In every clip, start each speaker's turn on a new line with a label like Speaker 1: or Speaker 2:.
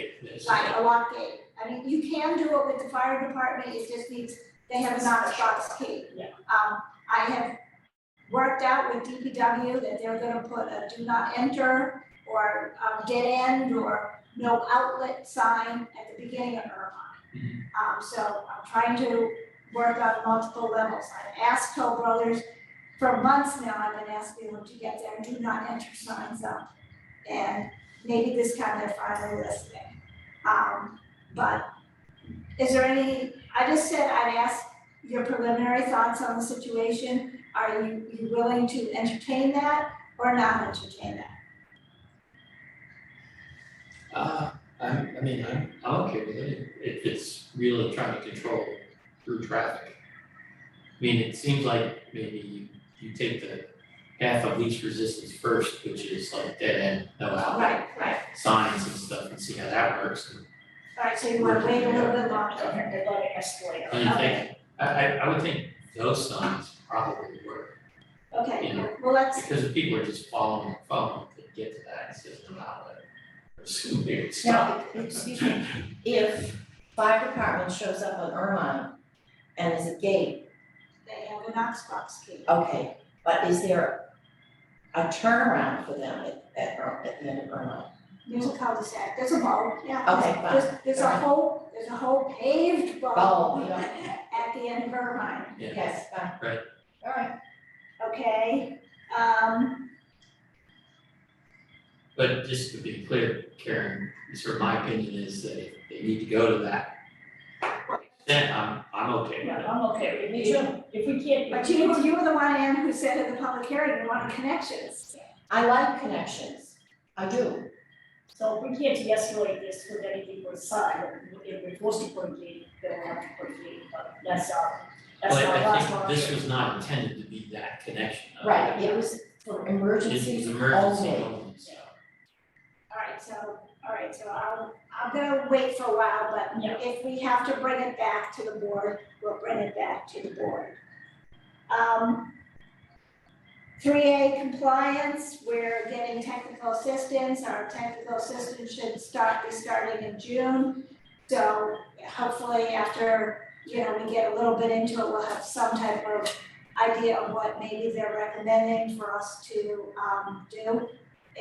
Speaker 1: It's-
Speaker 2: Right, a lock gate. I mean, you can do it with the fire department, it just needs, they have a not a box key.
Speaker 1: Yeah.
Speaker 2: Um, I have worked out with DPW that they're gonna put a do not enter or um dead end or no outlet sign at the beginning of Irvine.
Speaker 1: Mm-hmm.
Speaker 2: Um, so I'm trying to work on multiple levels. I've asked Toll Brothers for months now, I've been asking them to get their do not enter signs up. And maybe this time they're finally listening. Um, but is there any, I just said I'd ask your preliminary thoughts on the situation. Are you, you willing to entertain that or not entertain that?
Speaker 3: Uh, I, I mean, I'm, I'm okay with it, if it's really trying to control through traffic. I mean, it seems like maybe you, you take the half of least resistance first, which is like dead end, no outlet
Speaker 2: Right, right.
Speaker 3: signs and stuff, and see how that works. And-
Speaker 2: All right, so you wanna wait a little bit longer.
Speaker 4: they're going to escalate.
Speaker 3: And I think, I, I, I would think those signs probably work,
Speaker 2: Okay, well, let's,
Speaker 3: because if people are just following, following, could get to that, it says no outlet. Or some weird stuff.
Speaker 4: Now, excuse me, if fire department shows up on Irvine and is a gate,
Speaker 2: they have an Knox box key.
Speaker 4: okay, but is there a turnaround for them at, at, Ir- at the end of Irvine?
Speaker 2: There's a cul-de-sac, there's a bowl, yeah.
Speaker 4: Okay, fine.
Speaker 2: There's, there's a whole, there's a whole paved bowl
Speaker 4: Bowl, yeah.
Speaker 2: at the end of Irvine.
Speaker 3: Yeah.
Speaker 4: Yes, fine.
Speaker 3: Right.
Speaker 4: All right.
Speaker 2: Okay, um,
Speaker 3: But just to be clear, Karen, sort of my opinion is that if they need to go to that, then I'm, I'm okay with
Speaker 5: Yeah,
Speaker 3: it.
Speaker 5: I'm okay, if
Speaker 4: Me
Speaker 5: we,
Speaker 4: too.
Speaker 5: if we can't.
Speaker 2: but you, were- you were the one, Ann, who said at the public hearing, you wanted connections.
Speaker 4: I like connections. I
Speaker 3: Uh,
Speaker 4: do.
Speaker 5: So if we can't de-escalate this with anything but sign, if we're forced to put a gate, then we'll have to put a gate, but that's our, that's
Speaker 3: But
Speaker 5: our
Speaker 3: I
Speaker 5: last
Speaker 3: think
Speaker 5: one.
Speaker 3: this was not intended to be that connection. I
Speaker 4: Right,
Speaker 3: think
Speaker 4: it was for
Speaker 3: It's
Speaker 4: emergencies
Speaker 3: it's
Speaker 4: only.
Speaker 3: emergency only, so.
Speaker 2: All right, so, all right, so I'll, I'm gonna wait for a while, but
Speaker 5: Yeah.
Speaker 2: if we have to bring it back to the board, we'll bring it back to the board. Um, three A compliance, we're getting technical assistance, our technical assistance should start, be starting in June. So hopefully after, you know, we get a little bit into it, we'll have some type of idea of what maybe they're recommending for us to, um, do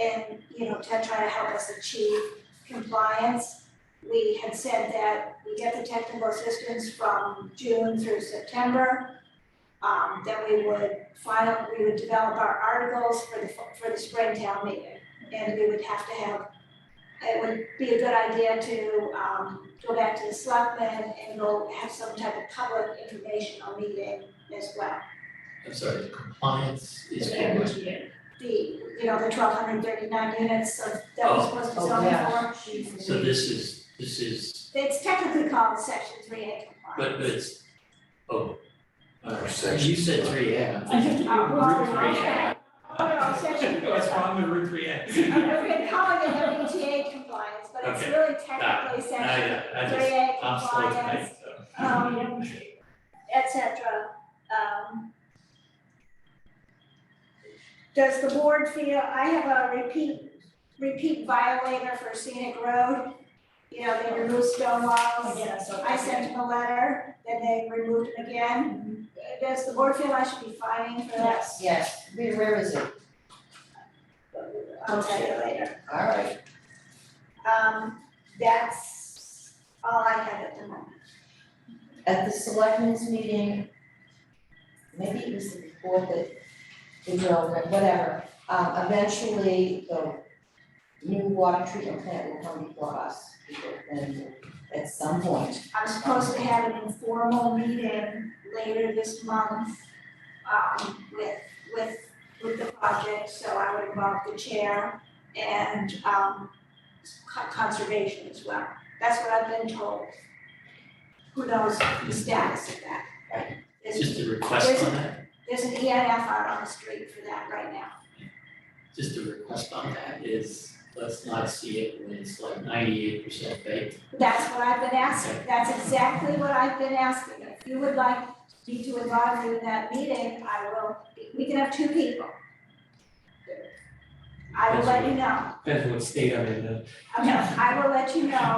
Speaker 2: and, you know, to try to help us achieve compliance. We had said that we get the technical assistance from June through September. Um, then we would file, we would develop our articles for the, for the spring town meeting. And we would have to have, it would be a good idea to, um, go back to the selectmen and go have some type of public informational meeting as well.
Speaker 3: I'm sorry, the compliance
Speaker 5: The
Speaker 3: is for what?
Speaker 5: energy and-
Speaker 2: The, you know, the twelve hundred thirty-nine units of, that we're
Speaker 3: Oh.
Speaker 2: supposed to
Speaker 4: Oh,
Speaker 2: zone for.
Speaker 4: yeah.
Speaker 3: So this is, this is,
Speaker 2: It's technically called section three A
Speaker 3: but
Speaker 2: compliance.
Speaker 3: but it's, oh. All right,
Speaker 6: Section
Speaker 3: you said three A.
Speaker 5: I
Speaker 2: Oh,
Speaker 5: think
Speaker 3: Route
Speaker 2: well,
Speaker 3: three
Speaker 2: okay.
Speaker 3: A.
Speaker 2: Oh, no, section four.
Speaker 3: What's wrong with Route three A?
Speaker 2: I've been calling it WTA compliance, but it's
Speaker 3: Okay.
Speaker 2: really technically
Speaker 3: I,
Speaker 2: section
Speaker 3: I
Speaker 2: three
Speaker 3: just,
Speaker 2: A
Speaker 3: I'm slow
Speaker 2: compliance,
Speaker 3: tonight, so.
Speaker 2: um, et cetera, um. Does the board feel, I have a repeat, repeat violator for scenic road, you know, they remove stone walls.
Speaker 5: Again, so.
Speaker 2: Oh, I sent him a letter, then they removed him again. Does the board feel I should be fining for that?
Speaker 5: Yes.
Speaker 4: Yes, where, where is it?
Speaker 2: I'll tell you later.
Speaker 4: All right.
Speaker 2: Um, that's all I have at the moment.
Speaker 4: At the selectmen's meeting, maybe it was the before that, the development, whatever, um, eventually the new water treatment plant will come before us, and at some point.
Speaker 2: I'm supposed to have an informal meeting later this month, um, with, with, with the project, so I would involve the chair and, um, co- conservation as well. That's what I've been told. Who knows the status of that?
Speaker 4: Right.
Speaker 2: There's-
Speaker 3: Just a request on that,
Speaker 2: There's an ENF out on the street for that right now.
Speaker 3: just a request on that is, let's not see it when it's like ninety-eight percent baked.
Speaker 2: That's what I've been asking, that's exactly what I've been asking. If you would like me to involve you in that meeting, I will, we can have two people. I will
Speaker 3: That's
Speaker 2: let you
Speaker 3: good.
Speaker 2: know,
Speaker 3: Depends what state I'm in, uh,
Speaker 2: Okay, I will let you know